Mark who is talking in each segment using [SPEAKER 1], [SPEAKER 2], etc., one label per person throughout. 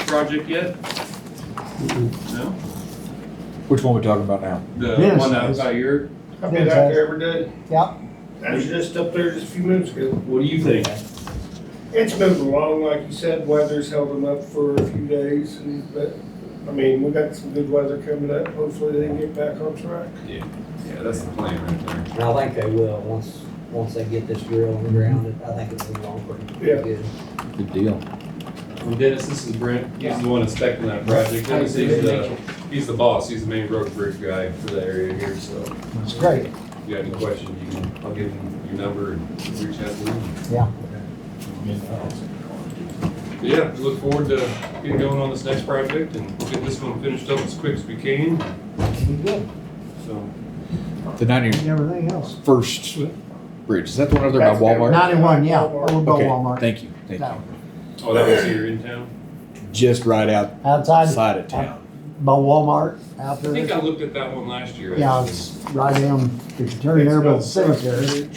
[SPEAKER 1] project yet? No?
[SPEAKER 2] Which one we talking about now?
[SPEAKER 1] The
[SPEAKER 3] Yes,
[SPEAKER 1] one out
[SPEAKER 3] yes.
[SPEAKER 1] by your,
[SPEAKER 4] I've been out there every day.
[SPEAKER 3] Yep.
[SPEAKER 4] I was just up there just a few minutes ago.
[SPEAKER 1] what do you think?
[SPEAKER 4] It's moving along, like you said, weather's held them up for a few days and, but, I mean, we got some good weather coming up. Hopefully they can get back on track.
[SPEAKER 5] Yeah, that's the plan right there.
[SPEAKER 6] And I think they will, once, once they get this drill on the ground, it- I think it'll be long pretty
[SPEAKER 4] Yeah.
[SPEAKER 6] pretty good.
[SPEAKER 2] Good deal.
[SPEAKER 1] And Dennis, this is Brent, he's the one inspecting that project, Dennis, he's the, he's the boss, he's the main road bridge guy for that area here, so
[SPEAKER 3] It's great.
[SPEAKER 1] if you got any questions, you can, I'll give him your number and reach out to him.
[SPEAKER 3] Yeah.
[SPEAKER 1] But Yeah, we look forward to getting going on this next project, and we'll get this one finished up as quick as we can,
[SPEAKER 3] Be good.
[SPEAKER 1] so.
[SPEAKER 2] The ninety
[SPEAKER 3] And everything else.
[SPEAKER 2] first bridge, is that the one over there
[SPEAKER 4] That's
[SPEAKER 2] by
[SPEAKER 4] good.
[SPEAKER 2] Walmart?
[SPEAKER 3] Ninety-one, yeah, over by
[SPEAKER 2] Okay,
[SPEAKER 3] Walmart.
[SPEAKER 2] Thank you, thank
[SPEAKER 3] That
[SPEAKER 2] you.
[SPEAKER 1] Oh, that was here in town?
[SPEAKER 2] Just right
[SPEAKER 3] Outside
[SPEAKER 2] outside of town.
[SPEAKER 3] by Walmart, out
[SPEAKER 1] I think
[SPEAKER 3] there.
[SPEAKER 1] I looked at that one last year.
[SPEAKER 3] Yeah, it's right down, if you turn there by the cemetery,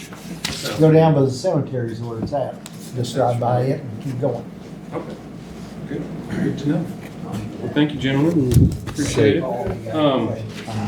[SPEAKER 1] Sounds
[SPEAKER 3] go down by the cemetery is where it's at. Just drive by it and keep going.
[SPEAKER 1] Okay, good, good to know. Um, Well, thank you, gentlemen, appreciate it. Um,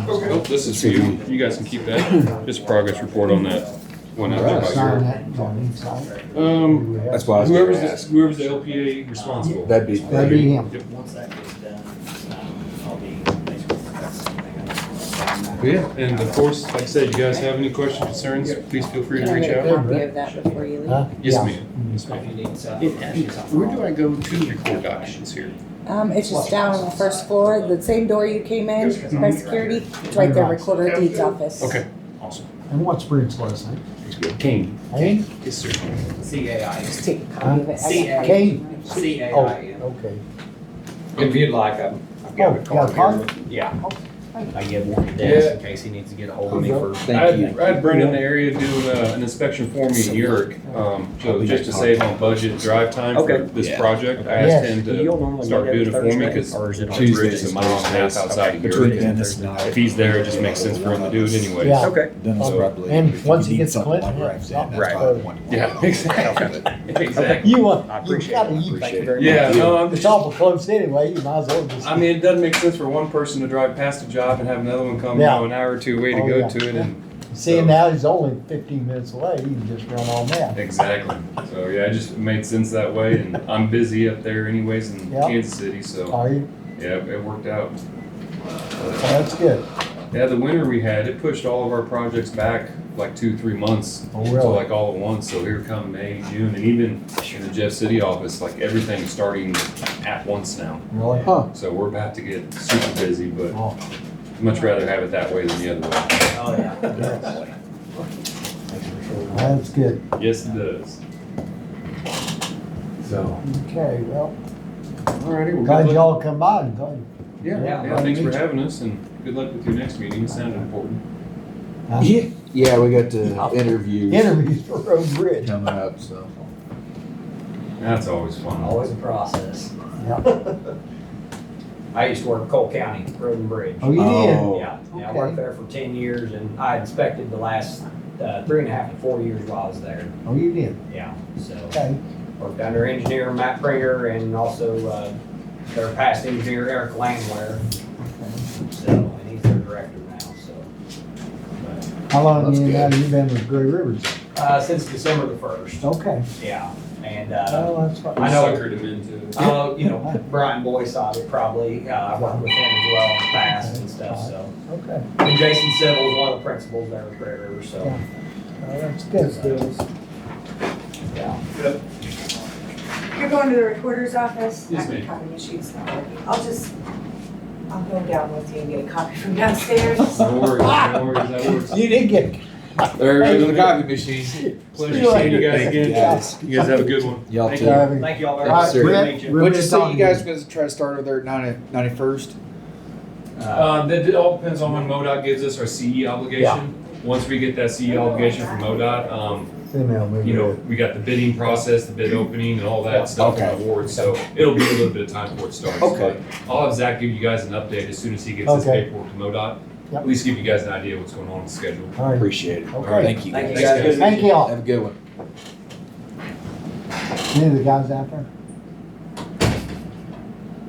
[SPEAKER 1] oh, this is for you, you guys can keep that, just a progress report on that one out there by
[SPEAKER 3] Sign
[SPEAKER 1] your.
[SPEAKER 3] that on each side.
[SPEAKER 1] Um,
[SPEAKER 2] That's why I was gonna
[SPEAKER 1] whoever's, the-
[SPEAKER 2] ask.
[SPEAKER 1] whoever's the LPA responsible.
[SPEAKER 2] That'd be,
[SPEAKER 3] That'd be him.
[SPEAKER 7] Once that gets done, um, I'll be basically that's something
[SPEAKER 1] Yeah, and of course, like I said, you guys have any questions, concerns, please feel free to reach out.
[SPEAKER 8] Copy of that before you leave.
[SPEAKER 3] Huh?
[SPEAKER 1] Yes,
[SPEAKER 3] Yeah.
[SPEAKER 1] ma'am, yes,
[SPEAKER 7] I
[SPEAKER 1] ma'am.
[SPEAKER 7] If you need some.
[SPEAKER 1] Where do I go to record documents here?
[SPEAKER 8] Um, it's just down on the first floor, the same door you came in by security, it's right there, recorder at deeds office.
[SPEAKER 1] Okay, awesome.
[SPEAKER 3] And what's Brent's last name?
[SPEAKER 1] Kane.
[SPEAKER 3] Hey?
[SPEAKER 1] Yes, sir.
[SPEAKER 7] C A I,
[SPEAKER 8] Just take a copy of it.
[SPEAKER 7] C A.
[SPEAKER 3] Kane?
[SPEAKER 7] C A
[SPEAKER 3] Oh,
[SPEAKER 7] I N.
[SPEAKER 3] okay.
[SPEAKER 5] If you'd like, I've I've
[SPEAKER 3] Oh,
[SPEAKER 5] got a
[SPEAKER 3] got
[SPEAKER 5] card
[SPEAKER 3] a card?
[SPEAKER 5] here. Yeah.
[SPEAKER 7] I give one to Dennis in case he needs to get a hold of me for.
[SPEAKER 1] I
[SPEAKER 2] thank
[SPEAKER 1] had,
[SPEAKER 2] you.
[SPEAKER 1] I had Brent in the area doing uh, an inspection for me in York, um, so just to save on budget drive time for
[SPEAKER 7] Okay.
[SPEAKER 1] this
[SPEAKER 2] Yeah.
[SPEAKER 1] project, I
[SPEAKER 3] Yes.
[SPEAKER 1] asked him to, start doing it for me, 'cause Tuesday is a mile and a half outside of
[SPEAKER 2] Between
[SPEAKER 1] York.
[SPEAKER 2] then and
[SPEAKER 1] If
[SPEAKER 2] tonight,
[SPEAKER 1] he's there, it just makes sense for him to do it anyways.
[SPEAKER 3] Yeah.
[SPEAKER 7] Okay,
[SPEAKER 2] Dennis
[SPEAKER 1] So-
[SPEAKER 2] probably.
[SPEAKER 3] And
[SPEAKER 2] if you
[SPEAKER 3] Oh, once he
[SPEAKER 2] need
[SPEAKER 3] gets
[SPEAKER 2] something
[SPEAKER 3] Clinton,
[SPEAKER 2] like Ralph said, that's
[SPEAKER 7] right.
[SPEAKER 2] probably the one you want.
[SPEAKER 1] Yeah, exactly. Exactly.
[SPEAKER 3] You want,
[SPEAKER 7] I
[SPEAKER 3] you
[SPEAKER 7] appreciate
[SPEAKER 3] gotta,
[SPEAKER 7] it.
[SPEAKER 3] you,
[SPEAKER 7] Thank you
[SPEAKER 2] Appreciate it.
[SPEAKER 7] very much.
[SPEAKER 1] Yeah, no, I'm
[SPEAKER 3] it's
[SPEAKER 1] just,
[SPEAKER 3] awful close anyway, you might as well just.
[SPEAKER 1] I mean, it doesn't make sense for one person to drive past a job and have another one come, you know, an hour or two away to
[SPEAKER 3] Oh,
[SPEAKER 1] go
[SPEAKER 3] yeah.
[SPEAKER 1] to it and.
[SPEAKER 3] Seeing now he's only fifteen minutes away, you can just run on that.
[SPEAKER 1] Exactly. So, yeah, it just made sense that way and I'm busy up there anyways in
[SPEAKER 3] Yeah.
[SPEAKER 1] Kansas City, so,
[SPEAKER 3] Are you?
[SPEAKER 1] yeah, it worked out.
[SPEAKER 3] That's good.
[SPEAKER 1] Yeah, the winter we had, it pushed all of our projects back like two, three months.
[SPEAKER 3] Oh,
[SPEAKER 1] So
[SPEAKER 3] really?
[SPEAKER 1] like all at once, so here come May, June, and even in the Jeff City office, like everything's starting at once now.
[SPEAKER 3] Really?
[SPEAKER 2] Huh.
[SPEAKER 1] So we're about to get super busy, but
[SPEAKER 3] Oh,
[SPEAKER 1] much rather have it that way than the other way.
[SPEAKER 7] Oh, yeah.
[SPEAKER 3] yes. That's good.
[SPEAKER 1] Yes, it does. So.
[SPEAKER 3] Okay, well,
[SPEAKER 1] Alrighty, well,
[SPEAKER 3] glad
[SPEAKER 1] good luck.
[SPEAKER 3] y'all come by and glad.
[SPEAKER 1] Yeah,
[SPEAKER 7] Yeah,
[SPEAKER 1] yeah, thanks for having us and good luck with your next meeting. It sounded important.
[SPEAKER 3] uh,
[SPEAKER 2] Yeah, yeah, we got to interview
[SPEAKER 3] Interviews for Road Bridge.
[SPEAKER 2] coming up, so.
[SPEAKER 1] That's always fun.
[SPEAKER 7] Always a process.
[SPEAKER 3] Yep.
[SPEAKER 7] I used to work Cole County Road and Bridge.
[SPEAKER 3] Oh, you did?
[SPEAKER 2] Oh.
[SPEAKER 7] Yeah, yeah, I
[SPEAKER 3] Okay.
[SPEAKER 7] worked there for ten years and I inspected the last, uh, three and a half to four years while I was there,
[SPEAKER 3] Oh, you did?
[SPEAKER 7] yeah, so.
[SPEAKER 3] Okay.
[SPEAKER 7] Worked under engineer Matt Pringer and also, uh, their past engineer Eric Langware. So, and he's their director now, so,
[SPEAKER 3] How long
[SPEAKER 2] That's
[SPEAKER 3] you now
[SPEAKER 2] good.
[SPEAKER 3] you been with Gray Rivers?
[SPEAKER 7] uh, since December the first,
[SPEAKER 3] Okay.
[SPEAKER 7] yeah, and, uh,
[SPEAKER 3] Oh, that's fine.
[SPEAKER 7] I know.
[SPEAKER 1] Suckered him into it.
[SPEAKER 7] uh, you know, Brian Boyce, I would probably, uh, I worked with him as well in the past and stuff, so.
[SPEAKER 3] Okay.
[SPEAKER 7] And Jason Civil is one of the principals there at Gray River, so,
[SPEAKER 3] Yeah. Oh, that's
[SPEAKER 4] That's
[SPEAKER 3] good.
[SPEAKER 4] Dennis.
[SPEAKER 7] yeah.
[SPEAKER 8] You're going to the recorder's office?
[SPEAKER 1] Yes,
[SPEAKER 8] I can
[SPEAKER 1] ma'am.
[SPEAKER 8] copy machines now. I'll just, I'll go down with you and get a copy from downstairs.
[SPEAKER 1] No worries, no worries, that works.
[SPEAKER 3] You did get,
[SPEAKER 2] There goes the copy machine.
[SPEAKER 1] Pleasure seeing you guys
[SPEAKER 2] Thank you,
[SPEAKER 1] again.
[SPEAKER 2] guys.
[SPEAKER 1] You guys have a good one.
[SPEAKER 2] Y'all
[SPEAKER 1] Thank
[SPEAKER 2] too.
[SPEAKER 1] you.
[SPEAKER 3] driving.
[SPEAKER 7] Thank you all very
[SPEAKER 2] All
[SPEAKER 7] much.
[SPEAKER 2] right,
[SPEAKER 7] Good to
[SPEAKER 3] Brett,
[SPEAKER 7] meet you.
[SPEAKER 3] Brett.
[SPEAKER 2] What'd you say
[SPEAKER 3] talking
[SPEAKER 2] you
[SPEAKER 3] to
[SPEAKER 2] guys was trying to start over there at ninety, ninety-first?
[SPEAKER 7] Uh,
[SPEAKER 1] Uh, that it all depends on when MoDOT gives us our CE obligation. Once we get that CE obligation from MoDOT, um,
[SPEAKER 3] Email me.
[SPEAKER 1] you know, we got the bidding process, the bid opening and all that stuff and
[SPEAKER 2] Okay.
[SPEAKER 1] awards, so it'll be a little bit of time before it starts.
[SPEAKER 2] Okay.
[SPEAKER 1] But I'll have Zach give you guys an update as soon as he gets his
[SPEAKER 3] Okay.
[SPEAKER 1] paperwork to MoDOT.
[SPEAKER 3] Yep.
[SPEAKER 1] At least give you guys an idea what's going on with the schedule.
[SPEAKER 3] All right.
[SPEAKER 2] Appreciate it.
[SPEAKER 3] Okay.
[SPEAKER 2] Thank you.
[SPEAKER 7] Thank you
[SPEAKER 1] Thanks,
[SPEAKER 7] guys.
[SPEAKER 1] guys.
[SPEAKER 3] Thank y'all.
[SPEAKER 2] Have a good one.
[SPEAKER 3] Any of the guys out there?